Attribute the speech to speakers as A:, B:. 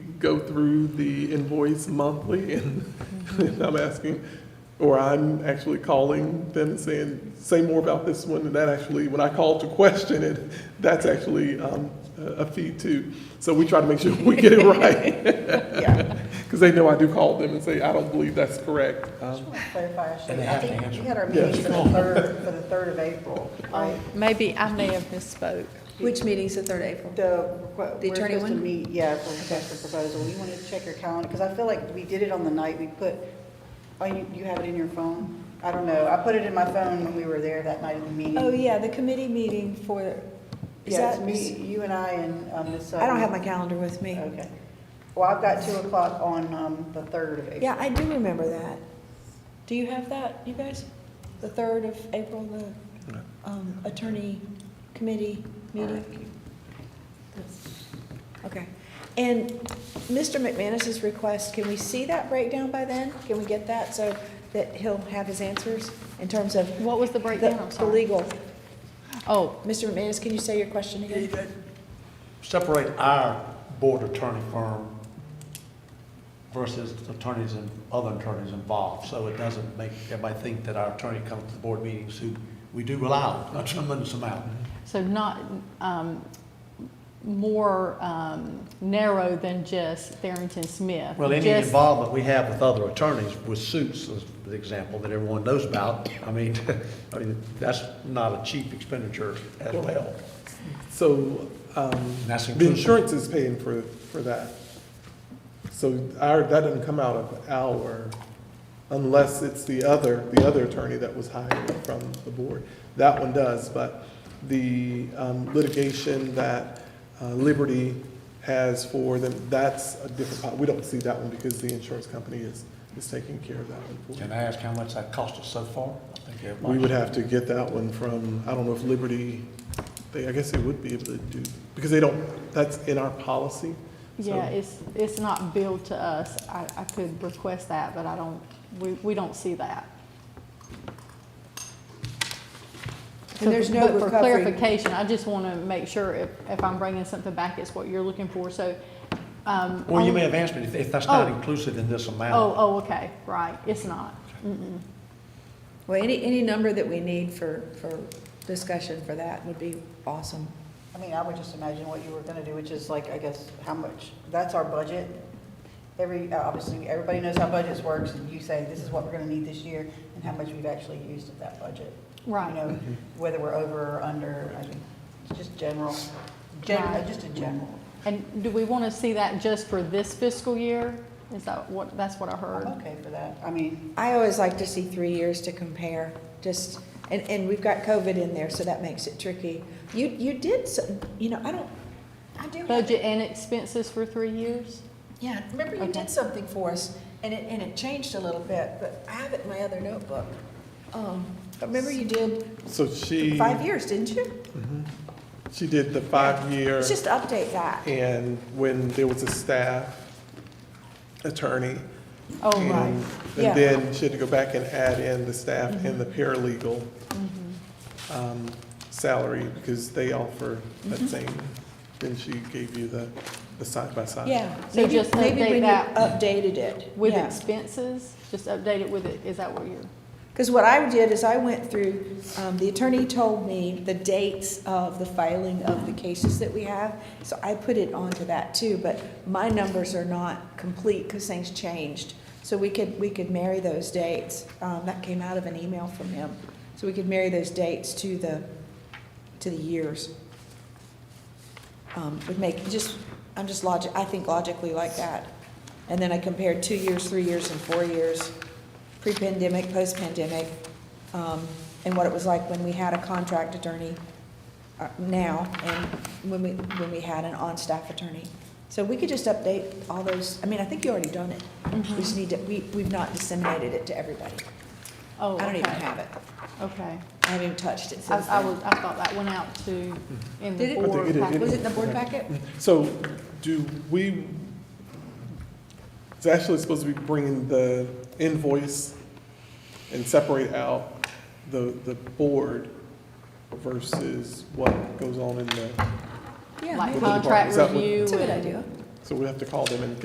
A: go through the invoice monthly and and I'm asking, or I'm actually calling them and saying, say more about this one, and that actually, when I call to question it, that's actually um, a a fee too. So we try to make sure we get it right,
B: Yeah.
A: because they know I do call them and say, I don't believe that's correct. Um,
B: Just want to clarify, Ashley.
C: And they
B: I
C: have to
B: think
C: answer.
B: we had our
A: Yeah.
B: meeting for the third, for the third of April,
D: Oh.
B: right?
D: Maybe I may have misspoke.
E: Which meeting's the third April?
B: The, we're
E: The attorney
B: supposed to
E: one?
B: meet, yeah, for request for proposal. You want to check your calendar, because I feel like we did it on the night we put, oh, you, you have it in your phone? I don't know. I put it in my phone when we were there that night of the meeting.
D: Oh, yeah, the committee meeting for, is
B: Yeah, it's
D: that,
B: me, you and I and um, Ms. Sutton.
D: I don't have my calendar with me.
B: Okay. Well, I've got two o'clock on, um, the third of April.
D: Yeah, I do remember that. Do you have that, you guys? The third of April, the um, attorney committee meeting? Okay. And Mr. McManus's request, can we see that breakdown by then? Can we get that so that he'll have his answers in terms of?
E: What was the breakdown? I'm
D: The
E: sorry.
D: legal.
E: Oh,
D: Mr. McManus, can you say your question again?
C: Separate our board attorney firm versus attorneys and other attorneys involved, so it doesn't make everybody think that our attorney comes to the board meetings, who we do allow a tremendous amount.
E: so not, um, more, um, narrow than just Tharrington Smith.
C: Well, any
E: Just-
C: involvement we have with other attorneys with suits, as the example that everyone knows about, I mean, I mean, that's not a cheap expenditure as well.
A: So um,
C: That's
A: the
C: inclusive.
A: insurance is paying for, for that. So our, that doesn't come out of our, unless it's the other, the other attorney that was hired from the board. That one does, but the um, litigation that uh, Liberty has for them, that's a different, pot. we don't see that one because the insurance company is, is taking care of that one. for us.
C: Can I ask how much that cost us so far? I think
A: We would
C: everybody-
A: have to get that one from, I don't know if Liberty, they, I guess they would be able to do, because they don't, that's in our policy. so-
E: Yeah, it's, it's not billed to us. I, I could request that, but I don't, we, we don't see that. So,
D: And there's no
E: but
D: recovery.
E: For clarification, I just want to make sure if, if I'm bringing something back, it's what you're looking for, so. um,
C: Well, you
E: on-
C: may have answered, if- if that's not
E: Oh.
C: inclusive in this amount.
E: Oh, oh, okay, right, it's not. Mm-mm.
D: Well, any, any number that we need for, for discussion for that would be awesome.
B: I mean, I would just imagine what you were gonna do, which is like, I guess, how much, that's our budget. Every, uh, obviously, everybody knows how budgets works, and you say, this is what we're gonna need this year, and how much we've actually used of that budget. You
E: Right.
B: know, whether we're over or under, I mean, it's just general, gen, uh,
E: Right.
B: just a general.
E: And do we want to see that just for this fiscal year? Is that what, that's what I
B: I'm
E: heard?
B: okay for that, I mean,
D: I always like to see three years to compare, just, and, and we've got COVID in there, so that makes it tricky. You, you did some, you know, I don't, I do. have-
E: Budget and expenses for three years?
D: Yeah, remember you
E: Okay.
D: did something for us, and it, and it changed a little bit, but I have it in my other notebook. Um, but remember you did
A: So she, mm-hmm,
D: five years, didn't you?
A: she did the five-year,
D: Let's just update that.
A: and when there was a staff attorney.
E: Oh,
A: and-
E: right.
D: yeah. Mm-hmm.
A: And then she had to go back and add in the staff and the paralegal um, salary, because they offer that
D: Mm-hmm.
A: same, then she gave you the, the side-by-side.
D: Yeah.
E: So
D: maybe-
E: just
D: maybe
E: update
D: when you
E: that.
D: Updated it.
E: With
D: yeah.
E: expenses? Just update it with it, is that what you're?
D: Because what I did is I went through, um, the attorney told me the dates of the filing of the cases that we have, so I put it onto that too, but my numbers are not complete because things changed. So we could, we could marry those dates, um, that came out of an email from him, so we could marry those dates to the, to the years. Um, would make, just, I'm just logic, I think logically like that. And then I compared two years, three years, and four years, pre-pandemic, post-pandemic, um, and what it was like when we had a contract attorney uh, now, and when we, when we had an on-staff attorney. So we could just update all those, I mean, I think you already done it. We just need to, we, we've not disseminated it to everybody.
E: Oh,
D: I don't even
E: okay.
D: have it.
E: Okay.
D: I haven't even touched it
E: I,
D: since
E: I
D: then.
E: was, I thought that went out to,
D: Did
E: in the
D: it?
A: I think
E: board
A: it is.
E: packet.
D: Was it the board packet?
A: So do we, it's actually supposed to be bringing the invoice and separate out the, the board versus what goes on in the,
D: Yeah,
E: Like
A: With the
D: maybe.
A: department.
D: uh,
E: contract
A: Is that what-
E: review
D: It's a good
E: and-
D: idea.
A: so we have to call them and